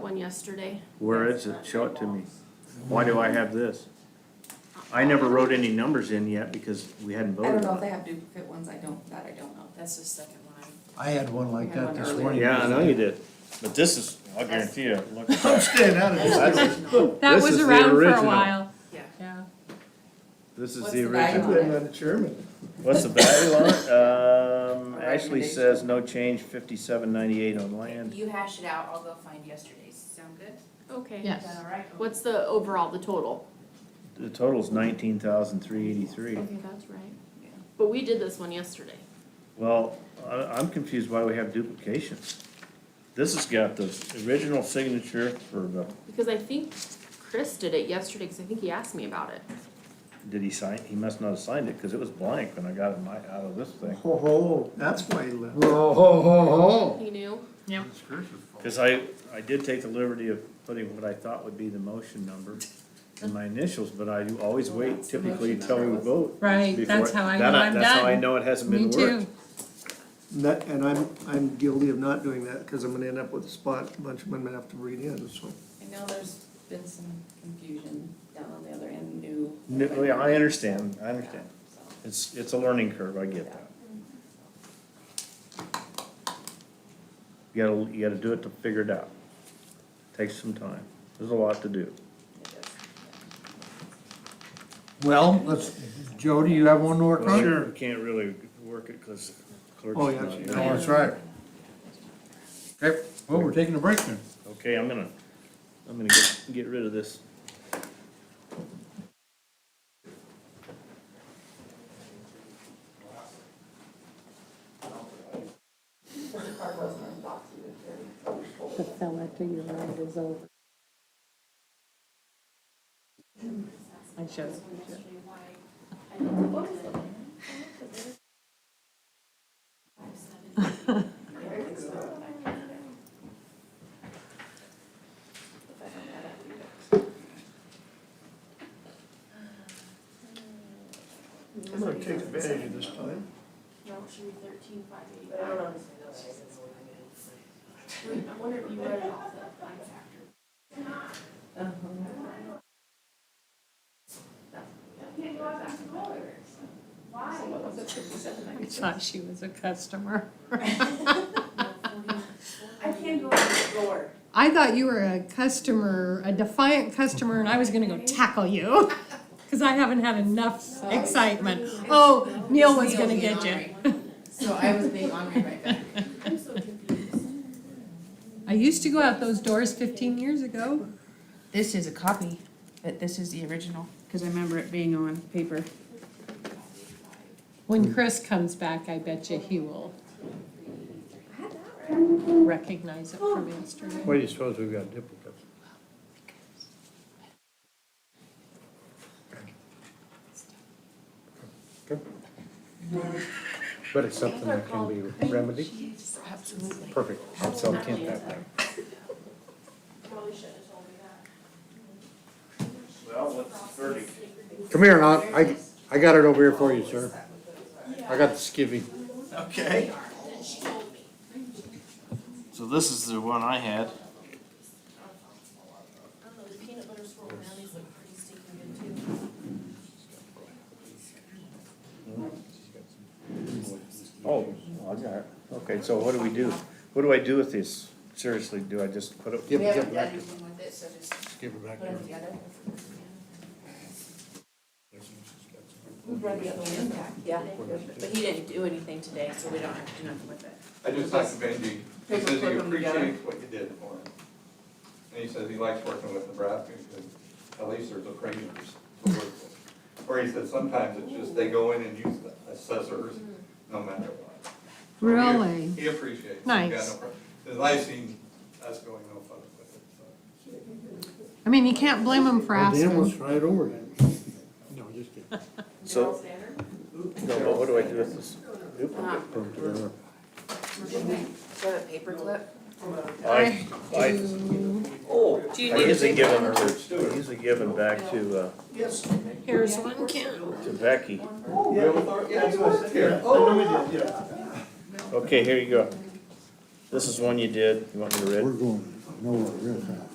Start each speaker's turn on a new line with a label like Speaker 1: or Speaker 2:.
Speaker 1: one yesterday.
Speaker 2: Where is it? Show it to me. Why do I have this? I never wrote any numbers in yet because we hadn't
Speaker 3: I don't
Speaker 2: voted
Speaker 3: know if
Speaker 2: on
Speaker 3: they
Speaker 2: it.
Speaker 3: have duplicate ones, I don't, that I don't know.
Speaker 1: That's the second one.
Speaker 4: I had one like that this morning.
Speaker 2: Yeah, I know you did.
Speaker 5: But this is, I guarantee you, look at
Speaker 4: I'm
Speaker 5: that.
Speaker 4: staying out of
Speaker 1: That's
Speaker 4: this.
Speaker 1: original.
Speaker 6: That
Speaker 2: This
Speaker 6: was
Speaker 2: is the
Speaker 6: around for a
Speaker 2: original.
Speaker 6: while,
Speaker 1: Yeah.
Speaker 6: yeah.
Speaker 2: This is
Speaker 3: What's
Speaker 2: the
Speaker 3: the value?
Speaker 2: original.
Speaker 4: Put it on the German.
Speaker 2: What's the value on it? Um,
Speaker 3: A
Speaker 2: Ashley says no change, fifty-seven ninety-eight on land.
Speaker 7: You hash it out, I'll go find yesterday's, sound good?
Speaker 1: Okay.
Speaker 6: Yes.
Speaker 7: Is that all right?
Speaker 1: What's the overall, the total?
Speaker 2: The total's nineteen thousand three eighty-three.
Speaker 1: Okay, that's right. But we did this one yesterday.
Speaker 2: Well, I, I'm confused why we have duplications.
Speaker 5: This has got the original signature for the,
Speaker 1: Because I think Chris did it yesterday, because I think he asked me about it.
Speaker 2: Did he sign? He must not have signed it because it was blank when I got it in my, out of this thing.
Speaker 4: Ho, ho, that's why he left. Ho, ho, ho, ho.
Speaker 1: He knew.
Speaker 6: Yep.
Speaker 2: Cause I, I did take the liberty of putting what I thought would be the motion number in my initials, but I do always
Speaker 6: Oh,
Speaker 2: wait typically until we vote.
Speaker 6: Right,
Speaker 2: before-
Speaker 6: that's how I
Speaker 2: that
Speaker 6: know I'm
Speaker 2: That's how I
Speaker 6: done.
Speaker 2: know it hasn't
Speaker 6: Me
Speaker 2: been worked.
Speaker 6: too.
Speaker 4: And that- And I'm, I'm guilty of not doing that, cause I'm gonna end up with a spot, a bunch of them I have to read in, so.
Speaker 3: I know there's been some confusion down on the other end, new.
Speaker 2: No, oh, yeah, I understand, I understand.
Speaker 3: So,
Speaker 2: It's, it's a learning curve, I get that. You gotta, you gotta do it to figure it out. Takes some time. There's a lot to do.
Speaker 3: it is, yeah.
Speaker 4: Well, let's, Jody, you have one to work
Speaker 2: You Can't really work it because clerk's
Speaker 4: Oh, yeah.
Speaker 2: not
Speaker 4: she-
Speaker 2: there.
Speaker 4: oh, that's right. Okay, well, we're taking a break then.
Speaker 2: Okay, I'm gonna, I'm gonna get, get rid of this.
Speaker 8: the fella to your right is over. I showed you.
Speaker 3: If I don't add up, you don't.
Speaker 4: I'm gonna take advantage of this time.
Speaker 3: Uh-huh.
Speaker 6: I thought she was a customer.
Speaker 7: I can't go on the door.
Speaker 6: I thought you were a customer, a defiant customer, and I was gonna go tackle you. Cause I haven't had enough excitement. Oh, Neil was gonna get you.
Speaker 3: So I was being honored right back.
Speaker 6: I used to go out those doors fifteen years ago.
Speaker 7: This is a copy, but this is the original, cause I remember it being on paper.
Speaker 6: When Chris comes back, I bet you he will recognize it from yesterday.
Speaker 4: Why do you suppose we've got duplicates?
Speaker 9: But it's something that can be remedied? Absolutely. Perfect, so it can't happen.
Speaker 5: well, what's the verdict?
Speaker 9: Come here, Aunt, I, I got it over here for you, sir. I got the skivvy.
Speaker 5: Okay. So this is the one I had.
Speaker 2: Oh, I got it. Okay, so what do we do? What do I do with this? Seriously, do I just put
Speaker 9: Give
Speaker 2: it?
Speaker 7: We
Speaker 9: it, give
Speaker 7: haven't done
Speaker 9: it back,
Speaker 7: anything with it, so just
Speaker 9: give it back.
Speaker 7: put them together.
Speaker 3: Who brought the other one back? Yeah.
Speaker 7: But he didn't do anything today, so we don't have to do nothing with it.
Speaker 10: I just talked to Benji, he
Speaker 3: Paper
Speaker 10: says he
Speaker 3: clip 'em together.
Speaker 10: appreciates what you did for him. And he says he likes working with Nebraska, because at least there's appraisers to work with. Or he said sometimes it's just they go in and use the assessors, no matter what. So he-
Speaker 6: Really?
Speaker 10: He appreciates. it. He's got no
Speaker 6: Nice.
Speaker 10: problem. Says, I've seen us going no further with it, so.
Speaker 6: I mean, you can't blame him for
Speaker 4: Damn,
Speaker 6: asking.
Speaker 4: let's try it over then. No, just kidding.
Speaker 2: So, no, but what do I do with this? duplicate?
Speaker 9: Put 'em together.
Speaker 7: The paperclip?
Speaker 2: I, I,
Speaker 7: Do you
Speaker 2: I usually give them, I usually give them back to, uh,
Speaker 6: Here's one can.
Speaker 2: to Becky.
Speaker 10: Yeah, you worked here.
Speaker 2: Okay, here you go. This is one you did. You want me to read?
Speaker 9: We're going. nowhere real fast.